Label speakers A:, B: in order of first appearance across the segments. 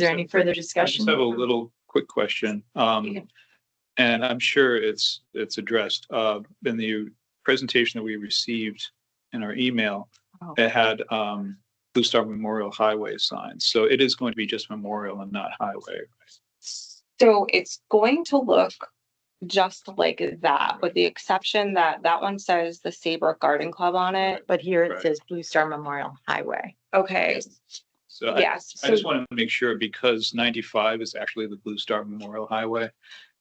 A: there any further discussion?
B: I just have a little quick question.
A: Yeah.
B: Um, and I'm sure it's, it's addressed, uh, in the presentation that we received in our email.
A: Oh.
B: It had, um, Blue Star Memorial Highway signs. So it is going to be just memorial and not highway.
A: So it's going to look just like that, with the exception that that one says the Saybrook Garden Club on it.
C: But here
B: Right.
C: it says Blue Star Memorial Highway.
A: Okay,
B: So I,
A: yes.
B: I
A: so-
B: just want to make sure because ninety-five is actually the Blue Star Memorial Highway.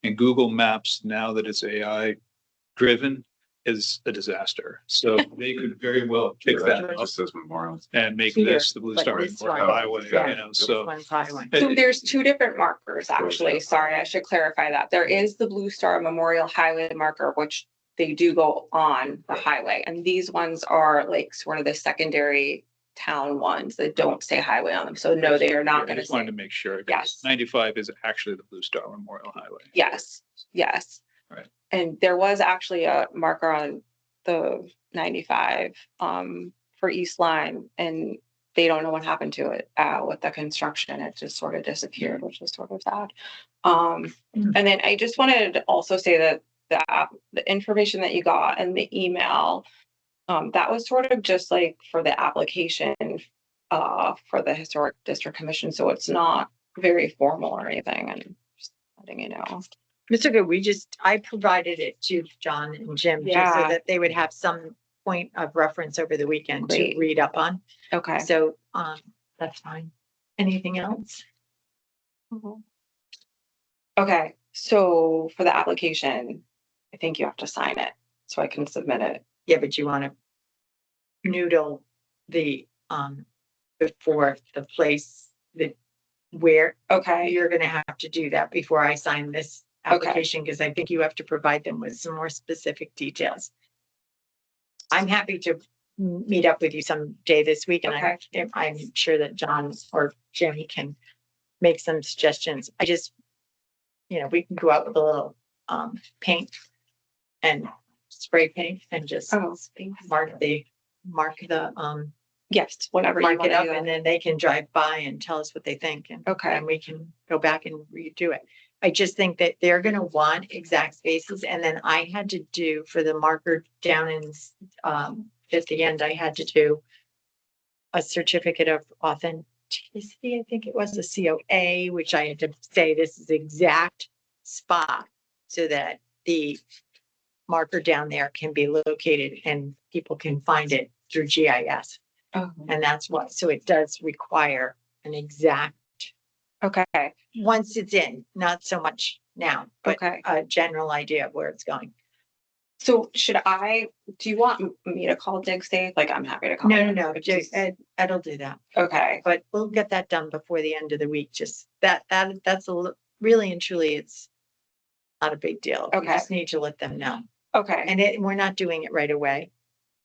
B: And Google Maps, now that it's AI driven, is a disaster. So they could very well pick
D: Right,
B: that
D: it
B: up
D: Just says memorial.
B: and make
C: Here,
B: this the Blue
C: but
B: Star
C: this
B: Memorial
D: one-
B: Highway,
D: Yeah.
B: you know,
D: This
C: This
B: so.
C: one's highway.
A: So there's two different markers, actually. Sorry, I should clarify that. There is the Blue Star Memorial Highway marker, which they do go on the highway. And these ones are like sort of the secondary town ones that don't say highway on them. So no, they are not
B: I
A: gonna
B: just wanted
A: say.
B: to make sure.
A: Yes.
B: Ninety-five is actually the Blue Star Memorial Highway.
A: Yes, yes.
B: Right.
A: And there was actually a marker on the ninety-five, um, for East Line and they don't know what happened to it, uh, with the construction. It just sort of disappeared, which was sort of sad. Um,
C: Mm.
A: and then I just wanted to also say that the, app- the information that you got and the email, um, that was sort of just like for the application, uh, for the Historic District Commission. So it's not very formal or anything and just letting you know.
C: It's okay. We just, I provided it to John and Jim just so
A: Yeah.
C: that they would have some point of reference over the weekend to
A: Great.
C: read up on.
A: Okay.
C: So, um, that's fine. Anything else?
A: Okay, so for the application, I think you have to sign it, so I can submit it.
C: Yeah, but you want to noodle the, um, before the place that where
A: Okay,
C: you're gonna have to do that before I sign this
A: Okay.
C: application, because I think you have to provide them with some more specific details. I'm happy to m- meet up with you someday this week, and I,
A: Okay.
C: if- I'm sure that John or Jimmy can make some suggestions. I just, you know, we can go out with a little, um, paint and spray paint and just
A: Oh.
C: mark the, mark the, um,
A: yes, whenever you
C: mark
A: want
C: it
A: to
C: up,
A: do
C: and
A: that.
C: then they can drive by and tell us what they think, and
A: Okay,
C: and we can go back and redo it. I just think that they're gonna want exact spaces, and then I had to do for the marker down in, um, at the end, I had to do a certificate of authenticity, I think it was a COA, which I had to say this is the exact spot so that the marker down there can be located and people can find it through GIS.
A: Oh,
C: And that's why, so it does require an exact
A: okay,
C: once it's in, not so much now, but
A: okay.
C: a general idea of where it's going.
A: So should I, do you want m- me to call DigSafe? Like, I'm happy to call.
C: No, no,
A: them,
C: no,
A: but
C: just, Ed, Ed'll do that,
A: Okay,
C: but we'll get that done before the end of the week, just that, that, that's a, li- really and truly, it's not a big deal. We
A: Okay.
C: Just need to let them know,
A: okay,
C: and it, we're not doing it right away.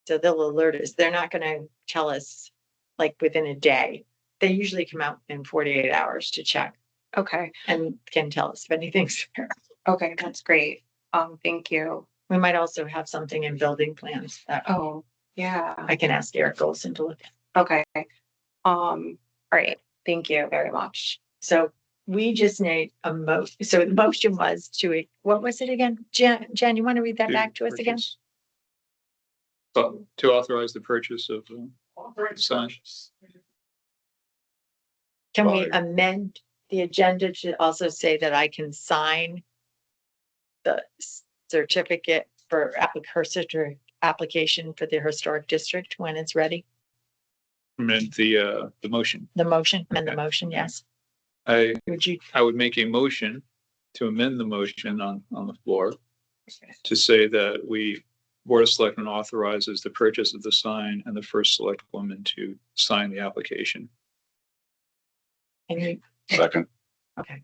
C: So they'll alert us, they're not gonna tell us like within a day. They usually come out in forty-eight hours to check
A: okay,
C: and can tell us if anything's there.
A: okay, that's great. Um, thank you.
C: We might also have something in building plans that
A: Oh, yeah,
C: I can ask Eric Olson to look at.
A: okay. Um, all right, thank you very much.
C: So we just need a mo, so the motion was to, what was it again? Jen, Jen, you want to read that back to us again?
B: purchase- So, To authorize the purchase of um, signs.
C: Can we
B: Sorry.
C: amend the agenda to also say that I can sign the certificate for applic- her certi- application for the historic district when it's ready?
B: Amend the, uh, the motion.
C: The motion, amend the
B: Okay.
C: motion, yes.
B: I,
C: Would you,
B: I would make a motion to amend the motion on, on the floor to say that we, Board of Selectmen authorizes the purchase of the sign and the first select woman to sign the application.
C: and you,
D: Second,
C: okay.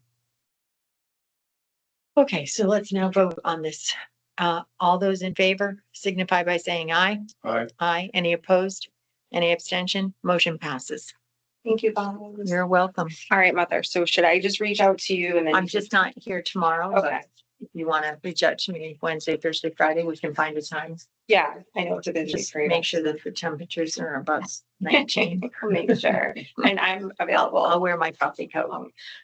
C: Okay, so let's now vote on this. Uh, all those in favor signify by saying aye.
B: Aye.
C: Aye. Any opposed? Any abstention? Motion passes.
A: Thank you, Bob.
C: You're welcome.
A: All right, mother. So should I just reach out to you and then?
C: I'm
A: you can-
C: just not here tomorrow. but
A: Okay.
C: if you want to reach out to me Wednesday, Thursday, Friday, we can find a time.
A: Yeah, I know it's a busy
C: Just
A: for you.
C: make sure that the temperatures are above nineteen.
A: Make sure, and I'm available.
C: I'll wear my coffee coat.
A: Um,